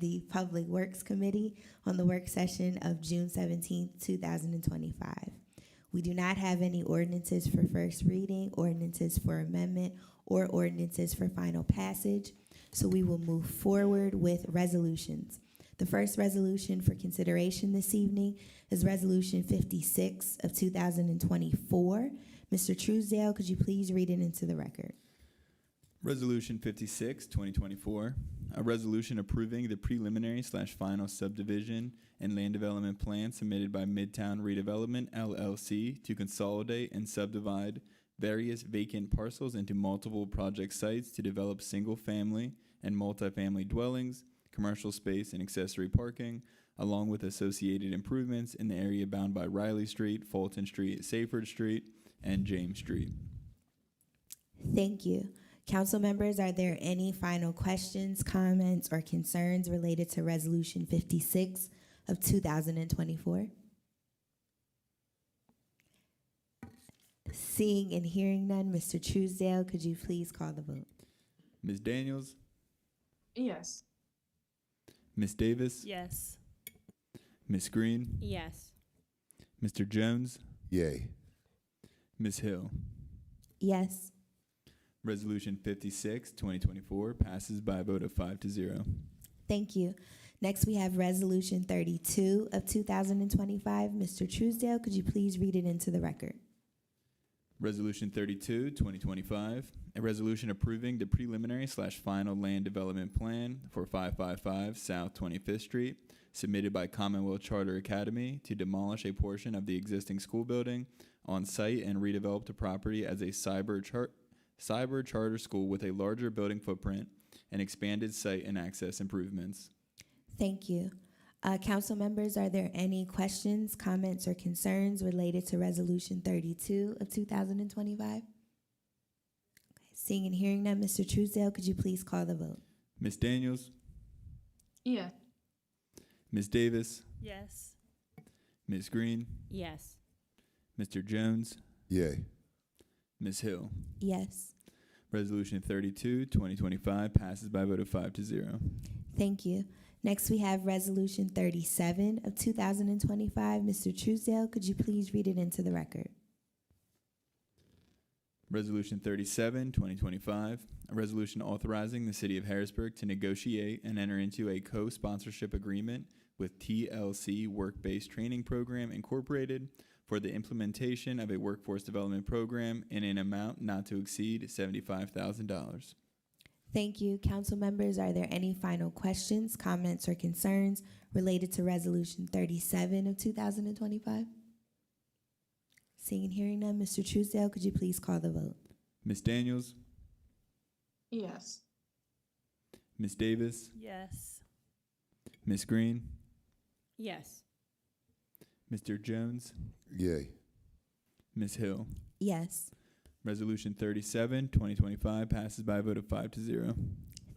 the Public Works Committee on the work session of June seventeenth, two thousand and twenty-five. We do not have any ordinances for first reading, ordinances for amendment, or ordinances for final passage, so we will move forward with resolutions. The first resolution for consideration this evening is Resolution fifty-six of two thousand and twenty-four. Mr. Truesdale, could you please read it into the record? Resolution 56, 2024, a resolution approving the preliminary slash final subdivision and land development plan submitted by Midtown Redevelopment LLC to consolidate and subdivide various vacant parcels into multiple project sites to develop single-family and multifamily dwellings, commercial space and accessory parking, along with associated improvements in the area bound by Riley Street, Fulton Street, Saferd Street, and James Street. Thank you. Council members, are there any final questions, comments, or concerns related to Resolution 56 of 2024? Seeing and hearing none, Mr. Truesdale, could you please call the vote? Ms. Daniels, Yes. Ms. Davis, Yes. Ms. Green, Yes. Mr. Jones, Yay. Ms. Hill. Yes. Resolution 56, 2024 passes by a vote of 5 to 0. Thank you. Next, we have Resolution 32 of 2025. Mr. Truesdale, could you please read it into the record? Resolution 32, 2025, a resolution approving the preliminary slash final land development plan for 555 South 25th Street submitted by Commonwealth Charter Academy to demolish a portion of the existing school building on site and redevelop the property as a cyber, char- cyber charter school with a larger building footprint and expanded site and access improvements. Thank you. Uh, council members, are there any questions, comments, or concerns related to Resolution thirty-two of two thousand and twenty-five? Seeing and hearing none, Mr. Truesdale, could you please call the vote? Ms. Daniels, Yes. Ms. Davis, Yes. Ms. Green, Yes. Mr. Jones, Yay. Ms. Hill. Yes. Resolution 32, 2025 passes by a vote of 5 to 0. Thank you. Next, we have Resolution thirty-seven of two thousand and twenty-five. Mr. Truesdale, could you please read it into the record? Resolution 37, 2025, a resolution authorizing the City of Harrisburg to negotiate and enter into a co sponsorship agreement with TLC Work Based Training Program Incorporated for the implementation of a workforce development program in an amount not to exceed $75,000. Thank you. Council members, are there any final questions, comments, or concerns related to Resolution 37 of 2025? Seeing and hearing none, Mr. Truesdale, could you please call the vote? Ms. Daniels, Yes. Ms. Davis, Yes. Ms. Green, Yes. Mr. Jones, Yay. Ms. Hill. Yes. Resolution 37, 2025 passes by a vote of 5 to 0.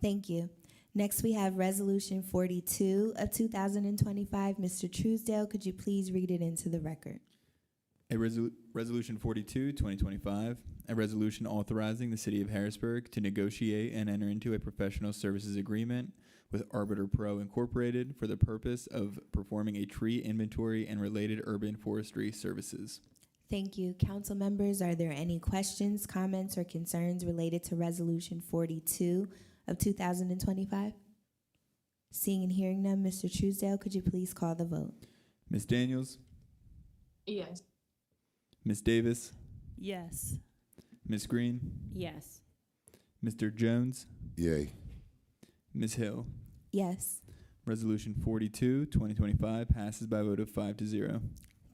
Thank you. Next, we have Resolution 42 of 2025. Mr. Truesdale, could you please read it into the record? A resol- resolution 42, 2025, a resolution authorizing the City of Harrisburg to negotiate and enter into a professional services agreement with Arbiter Pro Incorporated for the purpose of performing a tree inventory and related urban forestry services. Thank you. Council members, are there any questions, comments, or concerns related to Resolution 42 of 2025? Seeing and hearing none, Mr. Truesdale, could you please call the vote? Ms. Daniels, Yes. Ms. Davis, Yes. Ms. Green, Yes. Mr. Jones, Yay. Ms. Hill. Yes, Resolution 42, 2025 passes by a vote of 5 to 0.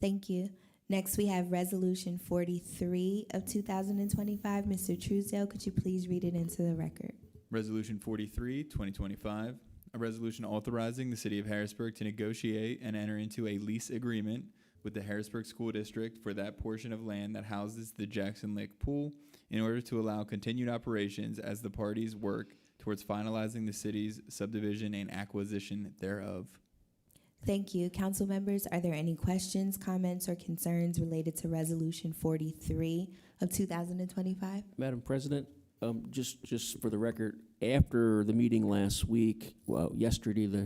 thank you. Next, we have Resolution 43 of 2025. Mr. Truesdale, could you please read it into the record? Resolution 43, 2025, a resolution authorizing the City of Harrisburg to negotiate and enter into a lease agreement with the Harrisburg School District for that portion of land that houses the Jackson Lake Pool in order to allow continued operations as the parties work towards finalizing the city's subdivision and acquisition thereof. Thank you. Council members, are there any questions, comments, or concerns related to Resolution 43 of 2025? Madam President, um, just, just for the record, after the meeting last week, well, yesterday, the